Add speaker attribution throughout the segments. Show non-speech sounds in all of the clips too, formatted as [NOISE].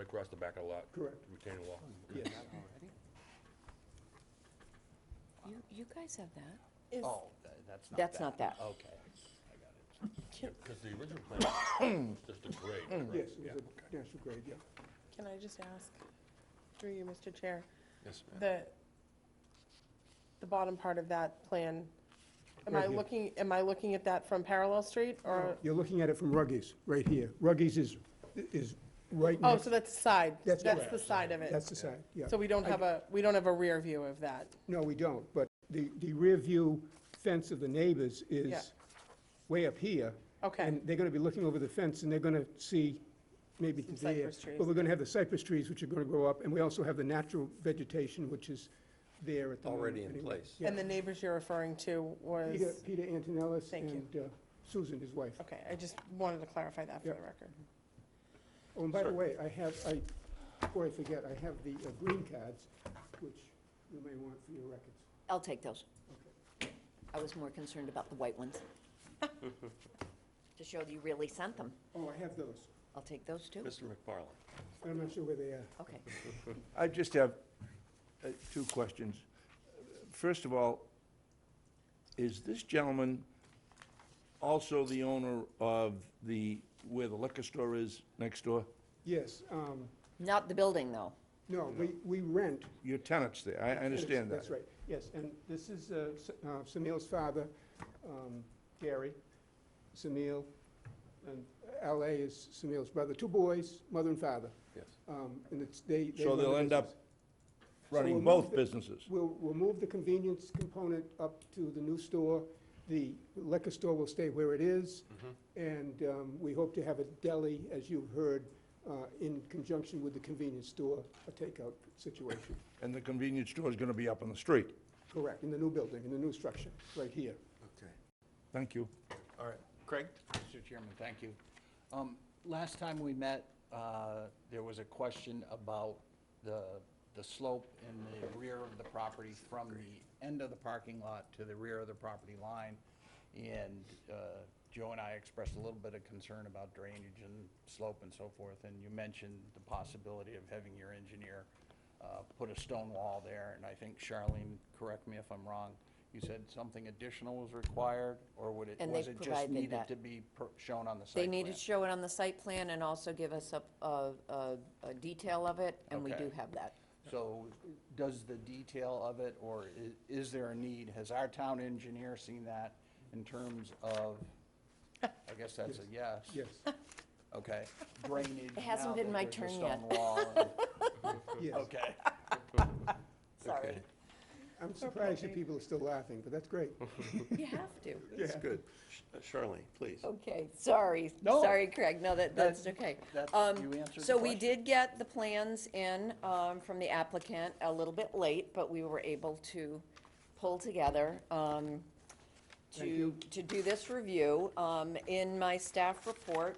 Speaker 1: across the back of the lot.
Speaker 2: Correct.
Speaker 1: Retaining wall.
Speaker 2: Yes.
Speaker 3: You, you guys have that?
Speaker 4: Is,
Speaker 5: Oh, tha- that's not that. Oh.
Speaker 6: That's not that.
Speaker 5: Okay, I got it.
Speaker 1: Because the original plan was just a grade,
Speaker 2: Yes,
Speaker 1: correct?
Speaker 2: it was a national grade, yeah.
Speaker 4: can I just ask, through you, Mr. Chair,
Speaker 7: Yes, ma'am.
Speaker 4: the, the bottom part of that plan, am I
Speaker 2: Right here.
Speaker 4: looking, am I looking at that from Parallel Street or?
Speaker 2: You're looking at it from Ruggies, right here. Ruggies is, is right
Speaker 4: Oh,
Speaker 2: next,
Speaker 4: so that's the side.
Speaker 2: That's
Speaker 4: the
Speaker 2: correct.
Speaker 4: side of
Speaker 2: that's
Speaker 4: it.
Speaker 2: the side, yeah.
Speaker 4: So we don't have a, we don't have a rear view of that.
Speaker 2: No, we don't, but the, the rear view fence of the neighbors
Speaker 4: Yeah.
Speaker 2: is way up here.
Speaker 4: Okay.
Speaker 2: And they're gonna be looking over the fence, and they're gonna see maybe
Speaker 4: Some
Speaker 2: there.
Speaker 4: cypress trees.
Speaker 2: But we're gonna have the cypress trees, which are gonna grow up, and we also have the natural vegetation, which is there at the moment.
Speaker 7: Already in
Speaker 2: anyway.
Speaker 7: place.
Speaker 2: Yeah.
Speaker 4: And the neighbors you're referring to
Speaker 2: Peter,
Speaker 4: was,
Speaker 2: Peter Antonellis
Speaker 4: Thank you.
Speaker 2: and uh, Susan, his wife.
Speaker 4: okay, I just wanted to clarify that for
Speaker 2: Yeah.
Speaker 4: the record.
Speaker 2: Oh, and by the way, I have, I, before I forget, I have the uh, green cards, which you may want for your records.
Speaker 6: I'll take those. I was more concerned about the white
Speaker 5: [LAUGHS]
Speaker 6: ones. To show that you really sent them.
Speaker 2: Oh, I have those.
Speaker 6: I'll take those too.
Speaker 1: Mr. McFarland.
Speaker 2: I'm not sure where they are.
Speaker 6: Okay.
Speaker 8: I just have uh, two questions. First of all, is this gentleman also the owner of the, where the liquor store is next door?
Speaker 2: Yes, um,
Speaker 6: Not the building, though.
Speaker 2: no, we, we rent.
Speaker 8: Your tenant's there, I- I understand that.
Speaker 2: That's right, yes, and this is uh, S- uh, Samil's father, um, Gary, Samil, and LA is Samil's brother, two boys, mother and father.
Speaker 7: Yes.
Speaker 2: Um, And it's, they. they
Speaker 8: So
Speaker 2: run the
Speaker 8: they'll end up
Speaker 2: business.
Speaker 8: Running
Speaker 2: we'll move
Speaker 8: both
Speaker 2: the-
Speaker 8: businesses?
Speaker 2: We'll, we'll move the convenience component up to the new store. The liquor store will stay where it is. And um, we hope to have a deli, as you've heard, uh, in conjunction with the convenience store, a takeout situation.
Speaker 8: And the convenience store is going to be up on the street?
Speaker 2: Correct, in the new building, in the new structure, right here.
Speaker 5: Okay.
Speaker 8: Thank you.
Speaker 5: All right,
Speaker 7: Craig?
Speaker 5: Mr. Chairman, thank you. Um, Last time we met, uh, there was a question about the, the slope in the rear of the property from the end of the parking lot to the rear of the property line. And uh, Joe and I expressed a little bit of concern about drainage and slope and so forth. And you mentioned the possibility of having your engineer uh, put a stone wall there. And I think Charlene, correct me if I'm wrong, you said something additional was required? Or would it,
Speaker 6: And
Speaker 5: was
Speaker 6: they've
Speaker 5: it just
Speaker 6: provided
Speaker 5: needed
Speaker 6: that.
Speaker 5: to be per- shown on the site
Speaker 6: They
Speaker 5: plan?
Speaker 6: need to show it on the site plan and also give us a, a, a- a detail of it, and we
Speaker 5: Okay.
Speaker 6: do have that.
Speaker 5: So does the detail of it, or i- is there a need? Has our town engineer seen that in terms of, I guess that's a yes?
Speaker 2: Yes,
Speaker 5: Okay, drainage. It
Speaker 6: hasn't been my turn yet. [LAUGHS]
Speaker 2: yes.
Speaker 5: Okay.
Speaker 6: Sorry.
Speaker 2: I'm surprised you people are still laughing, but that's great.
Speaker 6: You have to.
Speaker 1: That's good. Sh- uh, Charlene, please.
Speaker 6: [LAUGHS] Okay, sorry.
Speaker 5: No.
Speaker 6: Sorry, Craig, no, that,
Speaker 5: That-
Speaker 6: that's okay.
Speaker 5: that's-
Speaker 6: Um,
Speaker 5: you answered the
Speaker 6: So we
Speaker 5: question.
Speaker 6: did get the plans in um, from the applicant a little bit late, but we were able to pull together um, to, to do this review. Um, In my staff report,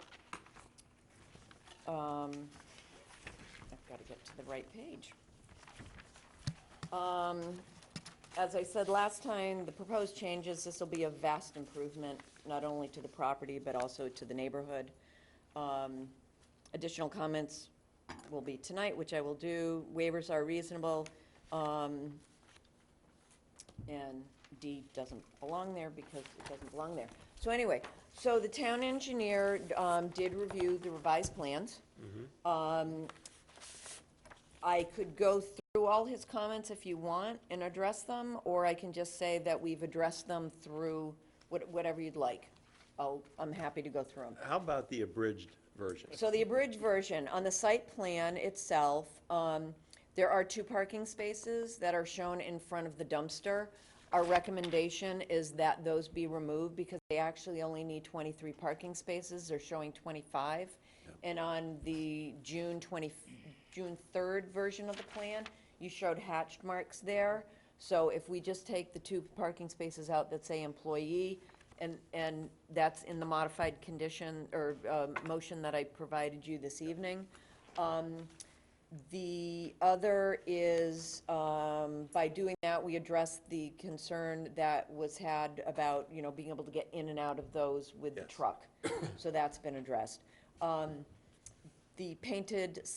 Speaker 6: um, I've got to get to the right page. Um, as I said last time, the proposed changes, this will be a vast improvement, not only to the property, but also to the neighborhood. Um, Additional comments will be tonight, which I will do. Waivers are reasonable. um, And D doesn't belong there because it doesn't belong there. So anyway, so the town engineer um, did review the revised plans. Um, I could go through all his comments if you want and address them, or I can just say that we've addressed them through what- whatever you'd like. I'll, I'm happy to go through them.
Speaker 1: How about the abridged version?
Speaker 6: So the abridged version, on the site plan itself, um, there are two parking spaces that are shown in front of the dumpster. Our recommendation is that those be removed because they actually only need twenty-three parking spaces. They're showing twenty-five. And on the June twenty, June third version of the plan, you showed hatched marks there. So if we just take the two parking spaces out that say employee, and, and that's in the modified condition or um, motion that I provided you this evening. Um, The other is, um, by doing that, we addressed the concern that was had about, you know, being able to get in and out of those with the truck. So that's been addressed. Um, The painted